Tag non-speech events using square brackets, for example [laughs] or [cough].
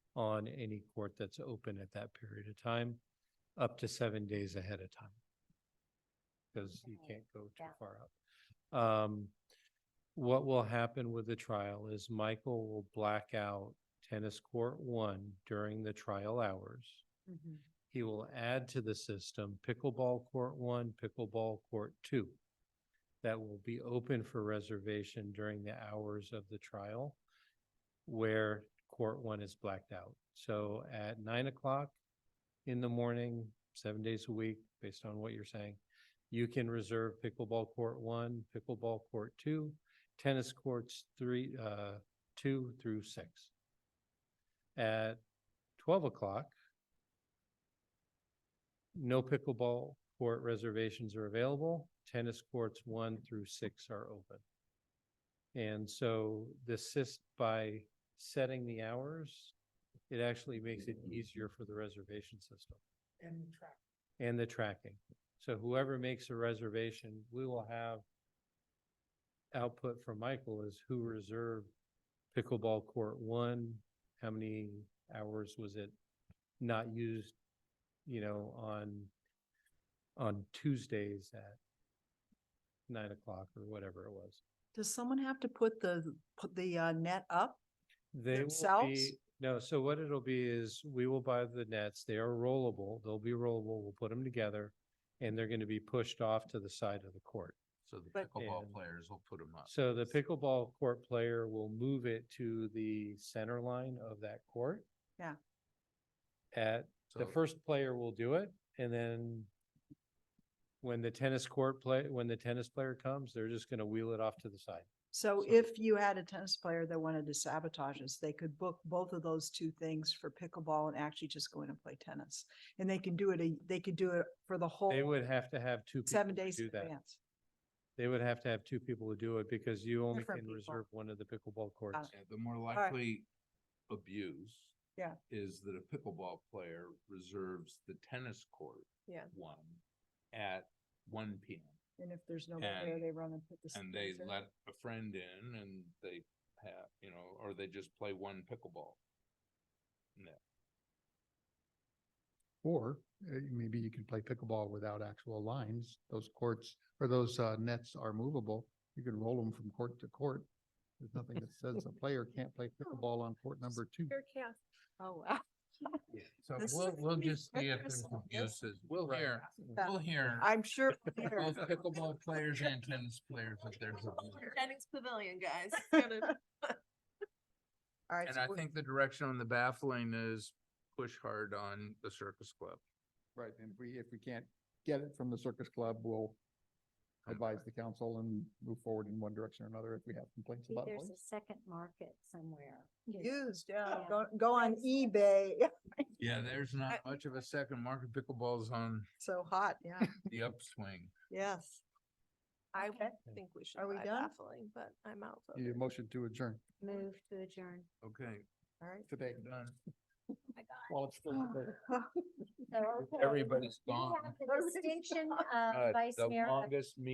on any court that's open at that period of time, up to seven days ahead of time. Because you Okay, can't go too yeah. far out. Um, what will happen with the trial is Michael will black out tennis court one during the trial hours. Mm-hmm. Mhm. He will add to the system pickleball court one, pickleball court two. That will be open for reservation during the hours of the trial where court one is blacked out. So at nine o'clock in the morning, seven days a week, based on what you're saying, you can reserve pickleball court one, pickleball court two, tennis courts three, uh, two through six. At twelve o'clock, no pickleball court reservations are available. Tennis courts one through six are open. And so this sys, by setting the hours, it actually makes it easier for the reservation system And track. and the tracking. So whoever makes a reservation, we will have output from Michael is who reserved pickleball court one, how many hours was it not used, you know, on, on Tuesdays at nine o'clock or whatever it was. Does someone have to put the, put the uh, net up? They will Themselves? be, no, so what it'll be is we will buy the nets. They are rollable. They'll be rollable. We'll put them together. And they're gonna be pushed off to the side of the court. So the But- And- pickleball players will put them up. So the pickleball court player will move it to the center line of that court. Yeah. At, the So- first player will do it and then when the tennis court play, when the tennis player comes, they're just gonna wheel it off to the side. So So- if you had a tennis player that wanted to sabotage us, they could book both of those two things for pickleball and actually just go in and play tennis. And they can do it, a- they could do it for the They whole would have to have two. people seven to days in Do that. advance. They would have to have two people to do it because you only Different can people. reserve one of the pickleball courts. Yeah, The more right. likely abuse. Yeah. Is that a pickleball player reserves the tennis court. Yeah. One at one P M And if there's nobody there, And- they run and put the. and they sponsor. let a friend in and they have, you know, or they just play one pickleball. Or uh, maybe you can play pickleball without actual lines. Those courts or those uh, nets are movable. You can roll them from court to court. There's nothing that says a player can't play pickleball on court number two. chaos. Oh, wow. So This we'll, is we'll pretty just see if there's interesting. This- abuses. We'll Right. hear, we'll hear. I'm sure. [laughs] they're- Both pickleball players and tennis players, [laughs] if there's abuse. [laughs] Jennings Pavilion, guys. It's [laughs] gonna- All right, And so I we- think the direction on the baffling is push hard on the circus club. Right, and if we, if we can't get it from the circus club, we'll advise the council and move forward in one direction or another if we have complaints Maybe about There's it. a second market somewhere. used, yeah, Yeah. go, go on eBay. [laughs] Yeah, there's not much of a second. Market pickleball's on So hot, yeah, the upswing. yes. I Okay. think we should Are we buy done? baffling, but I'm out. You need a motion to adjourn Move to adjourn. Okay, All right. today done. while it's still [sighs] there. [laughs] So, okay. Everybody's You gone. have the distinction, uh, Uh, Vice The Mayor, of longest meeting